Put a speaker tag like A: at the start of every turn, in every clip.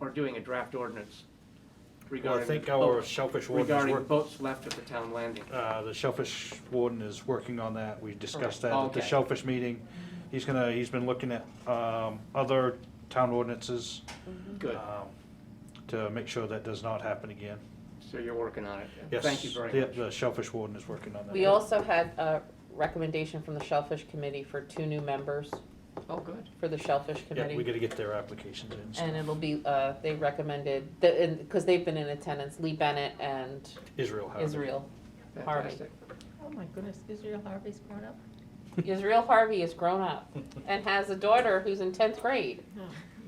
A: or doing a draft ordinance
B: Well, I
A: regarding.
B: think
A: the
B: our
A: boat-
B: shellfish warden is
A: Regarding
B: work,
A: boats left at the town landing.
B: uh, the shellfish warden is working on that. We discussed that at the
A: Okay.
B: shellfish meeting. He's gonna, he's been looking at, um, other town ordinances.
C: Mm-hmm.
A: Good,
B: um, To make sure that does not happen again.
A: so you're working on it.
B: Yes.
A: Thank you very
B: the-
A: much.
B: The shellfish warden is working on that.
C: We also had a recommendation from the Shellfish Committee for two new members
A: Oh, good.
C: for the Shellfish
B: Yeah, we
C: Committee.
B: gotta get their applications in. so-
C: And it'll be, uh, they recommended, because they've been in attendance, Lee Bennett and
B: Israel Harvey.
C: Israel. Harvey.
A: Fantastic.
D: Oh my goodness, Israel Harvey's grown up?
C: Israel Harvey is grown up and has a daughter who's in tenth grade,
D: No.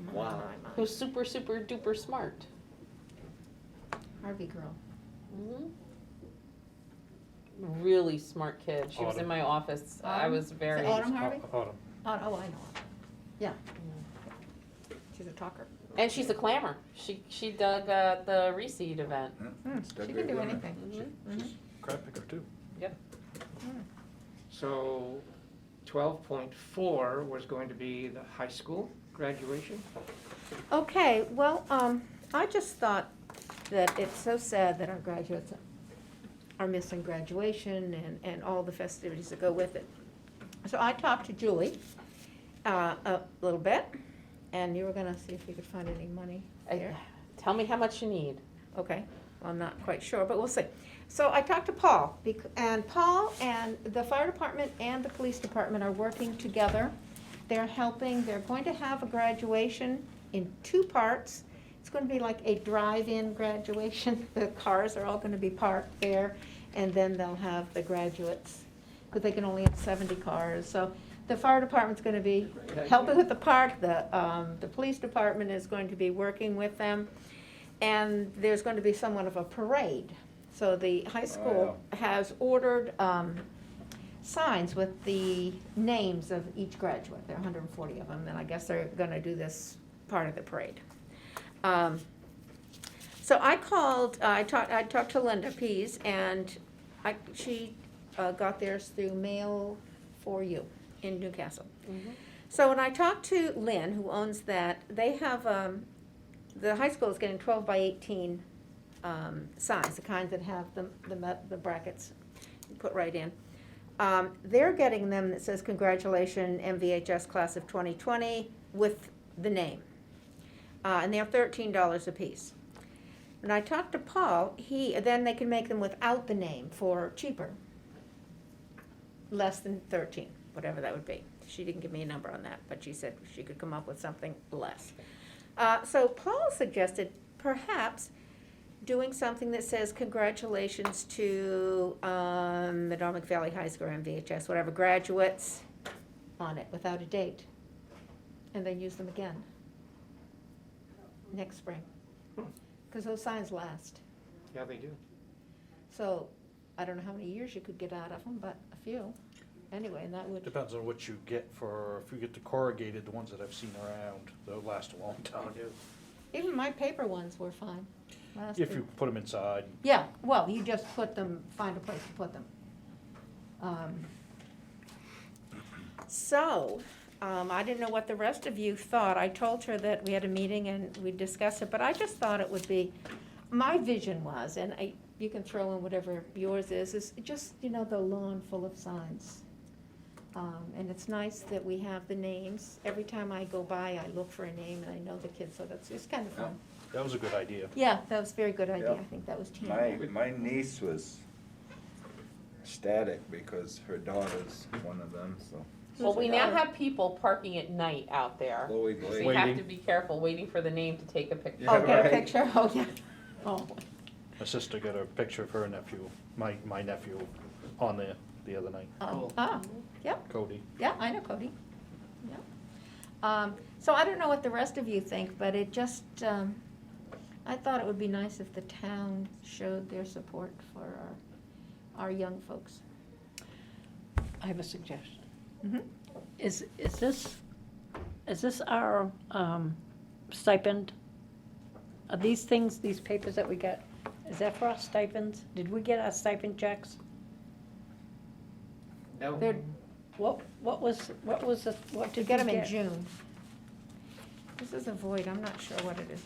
D: my,
A: Wow.
D: my, my.
C: who's super, super duper smart.
D: Harvey girl. Mm-hmm.
C: Mhm. Mm-hmm. Really smart kid. She was in
B: Autumn.
C: my office. I
D: Autumn?
C: was very,
D: Autumn?
B: Au-
D: Harvey?
B: Autumn.
D: Oh, oh, I know. Yeah. She's a talker.
C: and she's a clammer. She, she dug, uh, the reseed event.
D: She can do anything.
B: Mm-hmm.
C: Mhm.
D: Mhm.
B: Crab picker too.
D: Mm-hmm.
A: So twelve point four was going to be the high school graduation.
D: Okay, well, um, I just thought that it's so sad that our graduates are missing graduation and, and all the festivities that go with it. So I talked to Julie, uh, a little bit, and you were gonna see if you could find any money
C: I-
D: there.
C: Tell me how much you need.
D: Okay, well, I'm not quite sure, but we'll see. So I talked to Paul, bec- and Paul and the fire department and the police department are working together. They're helping, they're going to have a graduation in two parts. It's gonna be like a drive-in graduation, the cars are all gonna be parked there, and then they'll have the graduates, because they can only have seventy cars, so the fire department's gonna be helping with the park, the, um, the police department is going to be working with them. And there's going to be somewhat of a parade. So the high school has ordered, um, signs with the names of each graduate. There are hundred and forty of them, and I guess they're gonna do this part of the parade. Um, So I called, I talked, I talked to Linda Pease, and I, she, uh, got theirs through mail for you in Newcastle.
C: Mm-hmm.
D: So when I talked to Lynn, who owns that, they have, um, the high school is getting twelve by eighteen, um, signs, the kinds that have the, the, me- the brackets put right in. Um, they're getting them that says congratulations MVHS class of twenty twenty with the name. Uh, and they're thirteen dollars apiece. When I talked to Paul, he, then they can make them without the name for cheaper. Less than thirteen, whatever that would be. She didn't give me a number on that, but she said she could come up with something less. Uh, so Paul suggested perhaps doing something that says congratulations to um, Madomic Valley High School or MVHS, whatever, graduates on it without a date. And then use them again next spring. Because those signs last.
A: Yeah, they do.
D: So I don't know how many years you could get out of them, but a few. Anyway, and that would,
B: Depends on what you get for, if you get the corrugated, the ones that I've seen around, they'll last a long time.
A: They do.
D: even my paper ones were fine. Last
B: If you put them inside,
D: Yeah, well, you just put them, find a place to put them. Um, So, um, I didn't know what the rest of you thought. I told her that we had a meeting and we'd discuss it, but I just thought it would be, my vision was, and I, you can throw in whatever yours is, is just, you know, the lawn full of signs. Um, and it's nice that we have the names. Every time I go by, I look for a name and I know the kids, so that's, it's kind of fun.
B: that was a good idea.
D: Yeah, that was a very good idea.
E: Yeah.
D: I think that was Tammy.
E: My, my niece was ecstatic because her daughter's one of them, so
C: Well, we now
D: Who's the
C: have people parking at night out there.
E: Chloe
C: So
E: Blake.
C: you have
B: Waiting.
C: to be careful, waiting for the name to take a picture.
E: Yeah,
D: Oh, get a
E: right.
D: picture, oh, yeah. Oh,
B: My sister got a picture of her nephew, my, my nephew, on there the other night,
D: um,
A: Cool.
D: ah,
B: Cody.
D: yeah, I know Cody, yeah. Um, so I don't know what the rest of you think, but it just, um, I thought it would be nice if the town showed their support for our, our young folks.
F: I have a suggestion.
D: Mhm.
F: Is, is this, is this our um, stipend? Are these things, these papers that we get, is that for our stipends? Did we get our stipend checks?
A: No,
F: They're- What, what was, what was the, what did
D: To
F: we
D: get them in
F: get?
D: June. This is a void, I'm not sure what it is.